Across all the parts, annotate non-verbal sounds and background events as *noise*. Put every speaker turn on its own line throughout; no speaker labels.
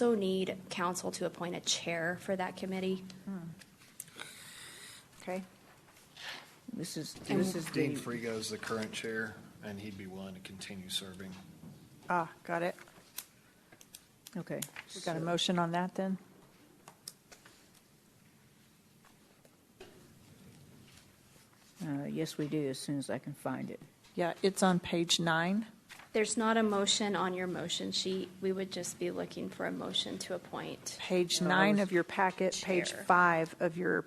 also need council to appoint a chair for that committee.
Okay. This is,
And-
this is
Dean
the,
Frigo is the current chair, and he'd be willing to continue serving.
ah, got it. Okay, we got a motion on that then?
Uh, Yes, we do, as soon as I can find it.
Yeah, it's on page nine.
There's not a motion on your motion sheet. We would just be looking for a motion to appoint.
Page nine of your packet, page
Chair.
five of your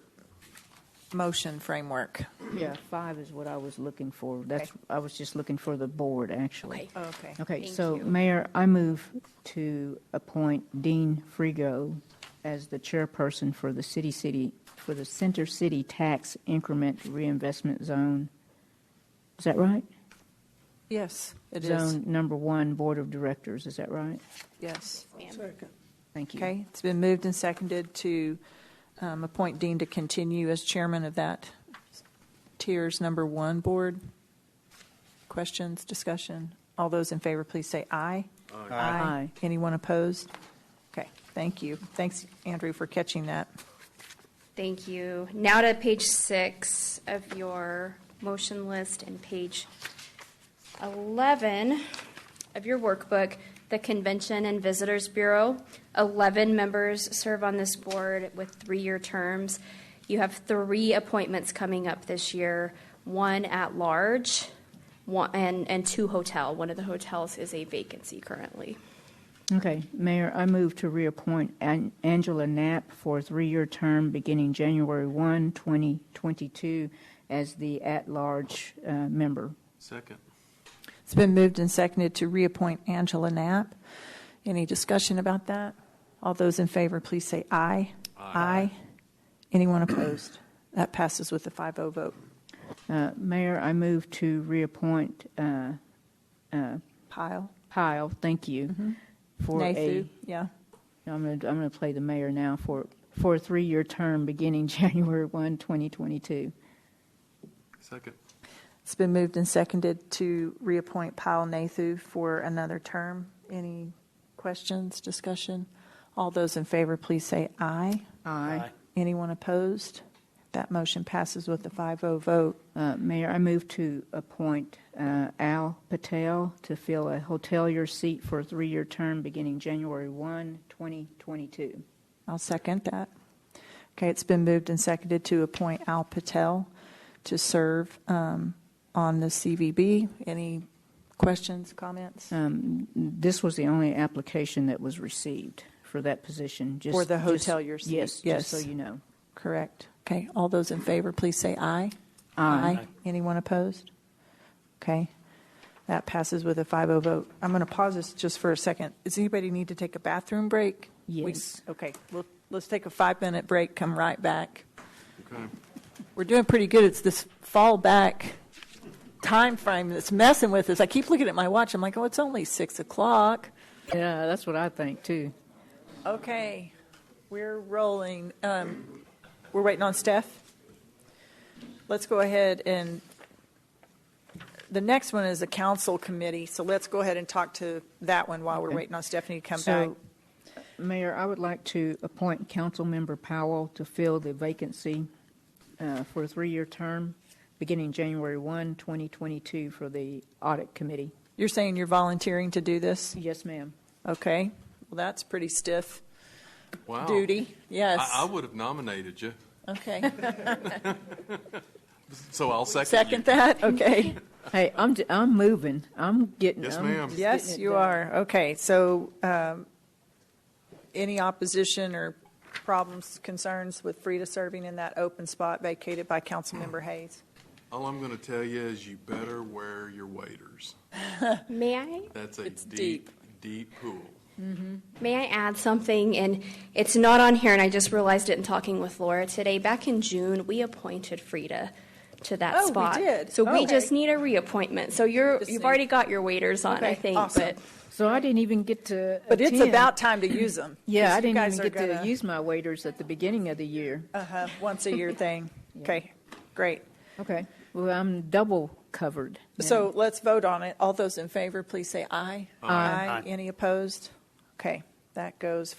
motion framework.
Yeah, five is what I was looking for. That's, I was just looking for the board, actually.
Okay.
Oh, Okay. Uh,
Okay,
Thank
so
you.
Mayor, I move to appoint Dean Frigo as the chairperson for the city city, for the Center City Tax Increment Reinvestment Zone. Is that right?
Yes, it is,
Zone number one, Board of Directors, is that right?
yes.
Thank you.
Okay, it's been moved and seconded to um, appoint Dean to continue as chairman of that tiers number one board. Questions, discussion? All those in favor, please say aye.
Aye.
Anyone opposed? Okay, thank you. Thanks, Andrew, for catching that.
Thank you. Now to page six of your motion list and page 11 of your workbook, the Convention and Visitors Bureau. 11 members serve on this board with three-year terms. You have three appointments coming up this year, one at-large one and, and two hotel. One of the hotels is a vacancy currently.
Okay, Mayor, I move to reappoint An- Angela Knapp for a three-year term beginning January 1, 2022, as the at-large uh, member.
Second.
It's been moved and seconded to reappoint Angela Knapp. Any discussion about that? All those in favor, please say aye. Aye. Anyone opposed? That passes with a 5-0 vote.
Uh, Mayor, I move to reappoint uh,
Pyle?
Pyle, thank you, for a,
Nathu? Yeah.
I'm going to, I'm going to play the mayor now, for, for a three-year term beginning *laughs* January 1, 2022.
Second.
It's been moved and seconded to reappoint Pyle Nathu for another term. Any questions, discussion? All those in favor, please say aye.
Aye.
Anyone opposed? That motion passes with a 5-0 vote.
Uh, Mayor, I move to appoint uh, Al Patel to fill a hotelier seat for a three-year term beginning January 1, 2022.
I'll second that. Okay, it's been moved and seconded to appoint Al Patel to serve um, on the CVB. Any questions, comments?
This was the only application that was received for that position. just-
For the
just-
hotelier seat,
Yes, just so
yes.
you know.
Correct. Okay, all those in favor, please say aye.
Aye.
Anyone opposed? Okay, that passes with a 5-0 vote. I'm going to pause this just for a second. Does anybody need to take a bathroom break? We-
Yes.
Okay, Well, let's take a five-minute break, come right back.
Okay.
We're doing pretty good. It's this fall back time frame that's messing with us. I keep looking at my watch. I'm like, oh, it's only six o'clock.
Yeah, that's what I think, too.
Okay, we're rolling. Um, we're waiting on Steph. Let's go ahead and the next one is a council committee. So let's go ahead and talk to that one while we're
Okay.
waiting on Stephanie to come back.
So, Mayor, I would like to appoint Councilmember Powell to fill the vacancy uh, for a three-year term beginning January 1, 2022 for the Audit Committee.
You're saying you're volunteering to do this?
Yes, ma'am.
Okay. Well, that's pretty stiff
Wow.
duty. Yes.
Oh. I, I would have nominated you,
okay.
so I'll second you.
Second
*laughs*
that? Okay.
Hey, I'm, j- I'm moving. I'm getting.
Yes,
I'm
ma'am.
just getting
Yes,
it
you
done.
are. Okay, so um, any opposition or problems, concerns with Frida serving in that open spot vacated by Councilmember Hayes?
All I'm going to tell you is you better wear your waders.
May I
That's a
It's
deep, deep pool.
May I add something? And it's not on here, and I just realized it in talking with Laura today. Back in June, we appointed Frida to that
Oh, we
spot.
did?
So we
Okay.
just need a reappointment. So you're
Just
you've
need-
already got your waiters on, I
Okay,
think.
awesome.
But
So I didn't even get to.
*clears throat* But it's
attend.
about time to use *clears throat* them.
Yeah, I didn't even get to use my waiters at the beginning of the year.
*laughs* Uh-huh, once a year thing. Okay, great.
Okay. Well, I'm double covered. now.
So let's vote on it. All those in favor, please say aye.
Aye.
Any opposed? Okay, that goes